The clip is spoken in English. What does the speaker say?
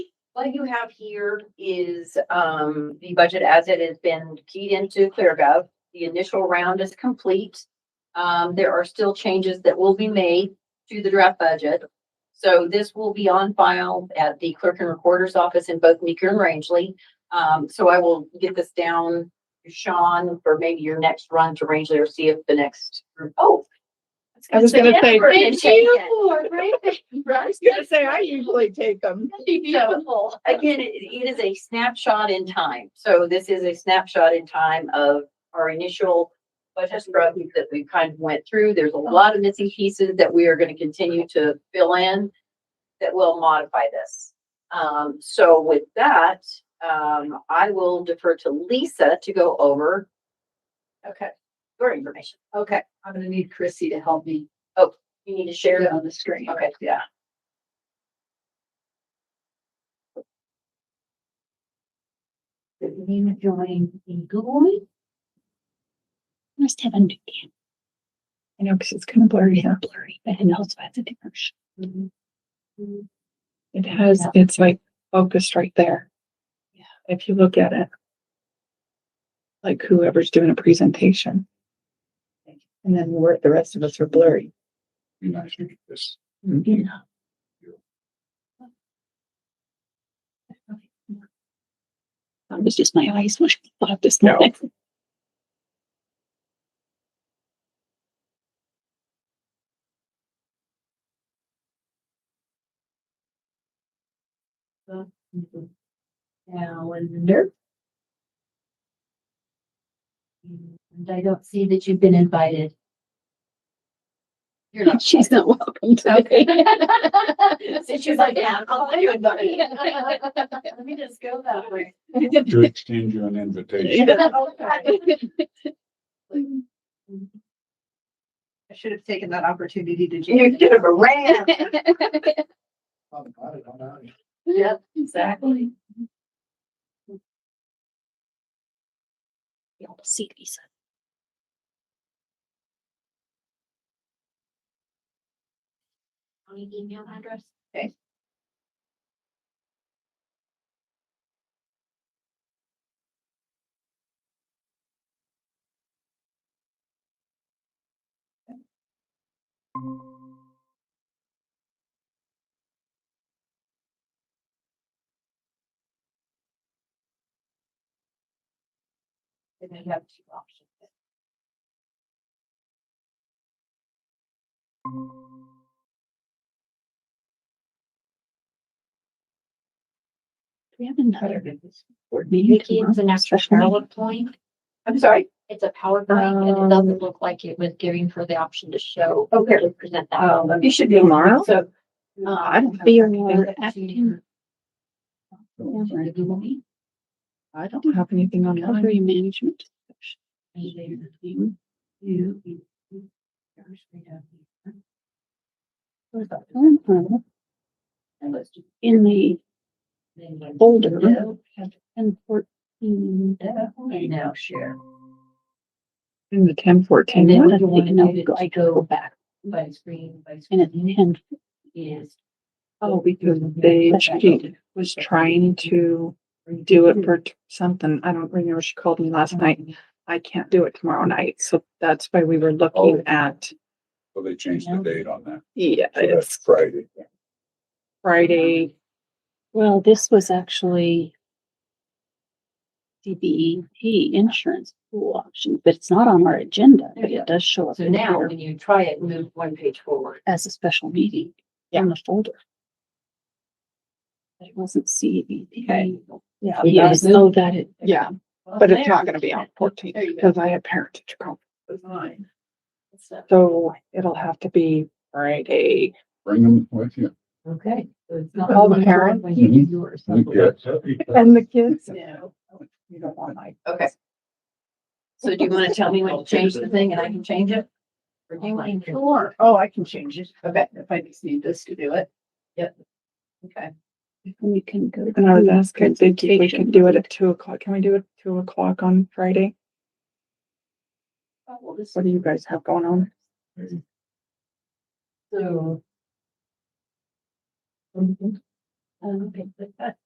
What you have here is, um, the budget as it has been keyed into ClearGov. The initial round is complete. Um, there are still changes that will be made to the draft budget. So this will be on file at the clerk and recorder's office in both Meeker and Rangeley. Um, so I will get this down to Sean for maybe your next run to Rangeley or see if the next, oh. I was gonna say- Effort and take it. I was gonna say, I usually take them. So, Again, it, it is a snapshot in time. So this is a snapshot in time of our initial budget struggles that we kind of went through. There's a lot of missing pieces that we are going to continue to fill in that will modify this. Um, so with that, um, I will defer to Lisa to go over Okay, your information. Oh, okay. I'm gonna need Chrissy to help me You need to share share it that. on the screen. Okay. Yeah. The name of join in Google Meet. Must have undo. I know, because it's kind of blurry, not blurry, but it also has a different. sh- Mm-hmm. It has, it's like focused right there. Yeah. If you look at it. Like whoever's doing a presentation. And then we're, the rest of us are blurry. Mm-hmm. You know. That was just my eyes when I thought this No. morning. Calendar. And I don't see that you've been invited. You're not. She's not welcome today. Since you're like, yeah, I'll let you invite me. Let me just go that way. To extend you an invitation. I should have taken that opportunity to. You could have ran. Yep, exactly. You'll see Lisa. County email address. Okay. And then you have two options. Do we have another board meeting tomorrow? an extra Special meeting? PowerPoint. I'm sorry. It's a PowerPoint and it doesn't look like it was giving her the option to show. Um, Okay. to Present that. Um, you should be Tomorrow? So. uh, Um, I don't have. Be anything. or after. the Google Meet. I don't have anything on that. Recovery management. discussion. Mm-hmm. In the folder. And fourteen. And now share. In the ten And then fourteen. what you if want they- no, to go- go, I go back by screen, by And at screen ten. is. Oh, because they, she was trying to do it for t- something. I don't remember. She called me last night. I can't do it tomorrow night. So that's why we were looking Oh. at, So they changed the date on that. yeah, So that's it's Friday. Friday. Well, this was actually. DBEP insurance pool option, but it's not on our agenda, but it does show up So in now here when you try it, move one page forward. as a special meeting in the folder. But it wasn't Okay. CBP. Yeah. Yeah, that's- so that it. Yeah, but it's not gonna be on fourteen There you go. because I have parent teacher conference. Fine. So, So it'll have to be Friday. Bring them with you. Okay. so it's not All the one parents? When you do yours. You get- And the kids? no. You don't want my. Okay. So do you want to tell me when to change the thing and I can change it? Or do you want to? Sure. Oh, I can change it. I bet if I just need this to do it. Okay. And you can go. And I was asking, if we presentation. can do it at two o'clock. Can we do it at two o'clock on Friday? Oh, well, this What do you guys have going on? So. Mm-hmm. Um, okay, but that-